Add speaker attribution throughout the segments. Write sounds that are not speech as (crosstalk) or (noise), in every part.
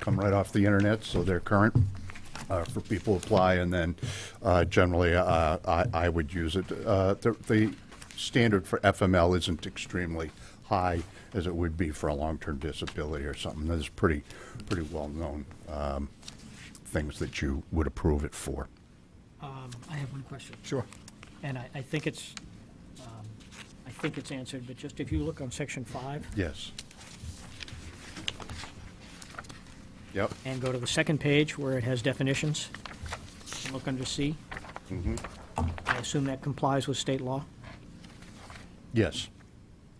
Speaker 1: come right off the internet, so they're current uh, for people to apply, and then uh, generally, uh, I I would use it. Uh, The the standard for FML isn't extremely high as it would be for a long-term disability or something. There's pretty, pretty well-known um, things that you would approve it for.
Speaker 2: Um, I have one question.
Speaker 1: Sure.
Speaker 2: And I, I think it's, um, I think it's answered, but just if you look on section five
Speaker 1: Yes. Yep,
Speaker 2: and go to the second page where it has definitions, and look under C. I assume that complies with state law.
Speaker 1: yes,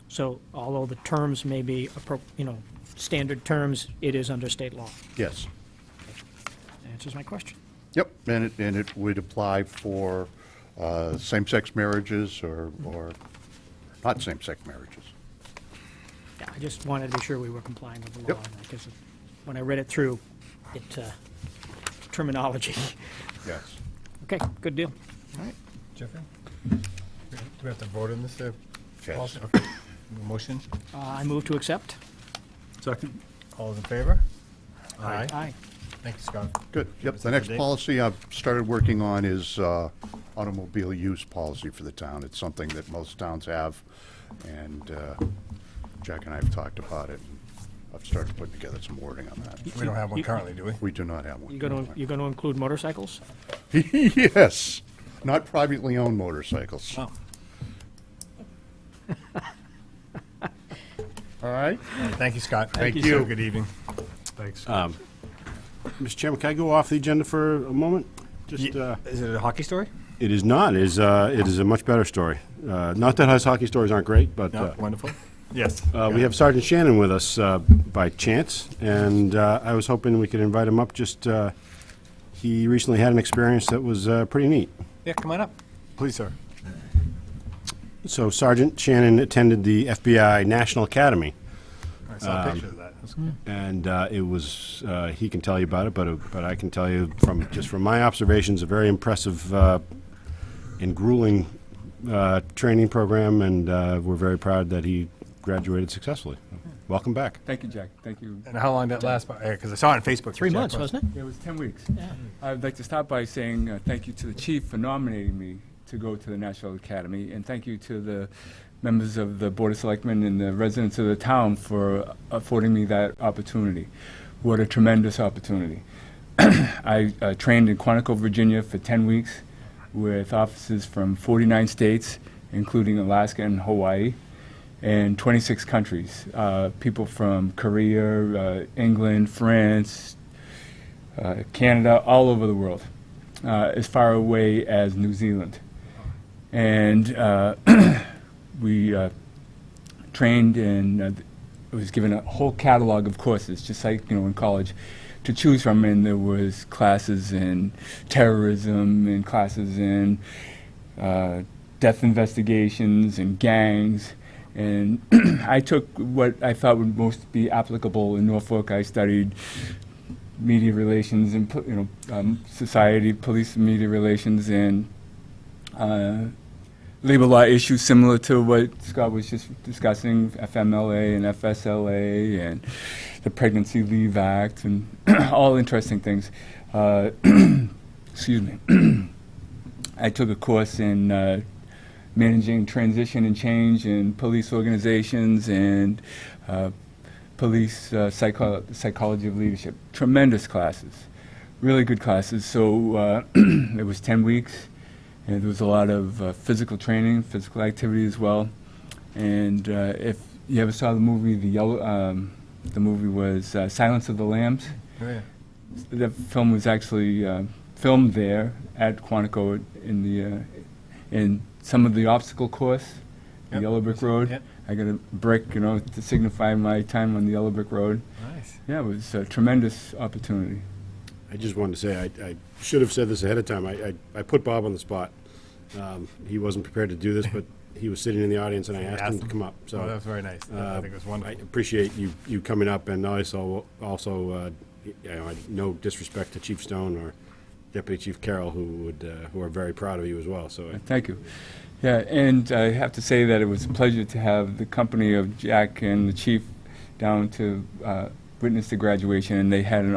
Speaker 2: So although the terms may be, appro- you know, standard terms, it is under state law.
Speaker 1: yes.
Speaker 2: That Answers my question.
Speaker 1: Yep, and it, and it would apply for uh, same-sex marriages or, or not same-sex marriages.
Speaker 2: Yeah, I just wanted to be sure we were complying with the
Speaker 1: Yep.
Speaker 2: law, because when I read it through, it, uh, terminology. (laughs)
Speaker 1: Yes.
Speaker 2: Okay, good deal.
Speaker 3: All right, Jeffrey? Do we have to vote on this? uh,
Speaker 1: Yes.
Speaker 3: policy? Okay. Motion,
Speaker 2: Uh, I move to accept.
Speaker 4: Second.
Speaker 3: all those in favor?
Speaker 4: Aye.
Speaker 2: Aye.
Speaker 3: Thank you, Scott.
Speaker 1: Good, yep.
Speaker 3: us
Speaker 1: The
Speaker 3: up to
Speaker 1: next
Speaker 3: date.
Speaker 1: policy I've started working on is uh, automobile use policy for the town. It's something that most towns have, and uh, Jack and I have talked about it. and I've started putting together some wording on that.
Speaker 3: We don't have one
Speaker 2: You-
Speaker 3: currently, do we?
Speaker 1: (laughs) We do not have one.
Speaker 2: You're going to, you're going to include motorcycles?
Speaker 1: (laughs) Yes, not privately owned motorcycles.
Speaker 3: Oh.
Speaker 1: (laughs) All right?
Speaker 3: Thank you, Scott.
Speaker 1: Thank
Speaker 3: sir.
Speaker 1: you.
Speaker 3: Good evening. Uh,
Speaker 4: Thanks.
Speaker 5: Mr. Chairman, can I go off the agenda for a moment? Just, uh,
Speaker 3: Is it a hockey story?
Speaker 5: it is not, it is, uh, it is a much better story. Uh, Not that us hockey stories aren't great, but
Speaker 3: No,
Speaker 5: uh,
Speaker 3: wonderful. Yes.
Speaker 5: uh, we have Sergeant Shannon with us uh, by chance, and uh, I was hoping we could invite him up, just, uh, he recently had an experience that was uh, pretty neat.
Speaker 3: Yeah, come on up. Please, sir.
Speaker 5: So Sergeant Shannon attended the FBI National Academy,
Speaker 3: I saw a picture of that. That's good.
Speaker 5: and uh, it was, uh, he can tell you about it, but, uh, but I can tell you from, just from my observations, a very impressive uh, and grueling uh, training program, and uh, we're very proud that he graduated successfully. Welcome back.
Speaker 4: Thank you, Jack. Thank you.
Speaker 3: And how long did that last? Because I saw it on Facebook.
Speaker 2: Three months, wasn't it?
Speaker 4: It was 10 weeks. I'd like to start by saying uh, thank you to the chief for nominating me to go to the National Academy, and thank you to the members of the Board of Selectmen and the residents of the town for affording me that opportunity. What a tremendous opportunity. (clears throat) I uh, trained in Quantico, Virginia for 10 weeks with officers from 49 states, including Alaska and Hawaii, and 26 countries. Uh, people from Korea, uh, England, France, uh, Canada, all over the world, uh, as far away as New Zealand. And uh, (clears throat) we uh, trained and uh, th- was given a whole catalog of courses, just like you know in college, to choose from. And there was classes in terrorism, and classes in uh, death investigations, and gangs. And (clears throat) I took what I thought would most be applicable in Norfolk. I studied media relations and po- you know um, society, police, and media relations, and uh, labor law issues similar to what Scott was just discussing, FMLA and FSLA and the Pregnancy Leave Act and (clears throat) all interesting things. Uh, (clears throat) excuse me. (clears throat) I took a course in uh, managing transition and change in police organizations and uh, police uh, psycho- psychology of leadership. Tremendous classes, really good classes. So uh, (clears throat) it was 10 weeks, and there was a lot of uh, physical training, physical activity as well. And uh, if you ever saw the movie, the yellow, um, the movie was uh, Silence of the Lambs.
Speaker 3: Oh, yeah.
Speaker 4: The film was actually uh, filmed there at Quantico in the uh, in some of the obstacle course, the
Speaker 3: Yep.
Speaker 4: Yellow Brick Road.
Speaker 3: Yep.
Speaker 4: I got a brick, you know, to signify my time on the Yellow Brick Road.
Speaker 3: Nice.
Speaker 4: Yeah, it was a tremendous opportunity.
Speaker 5: I just wanted to say, I, I should have said this ahead of time. I, I, I put Bob on the spot. Um, he wasn't prepared to do this, but he was sitting in the audience, and I asked him to come up. So
Speaker 3: Oh, that was very nice. I
Speaker 5: uh,
Speaker 3: think it was
Speaker 5: I
Speaker 3: wonderful.
Speaker 5: appreciate you, you coming up, and also, also, uh, you know, I- no disrespect to Chief Stone or Deputy Chief Carroll, who would, uh, who are very proud of you as well, so. I-
Speaker 4: Thank you. Yeah, and I have to say that it was a pleasure to have the company of Jack and the chief down to uh, witness the graduation, and they had an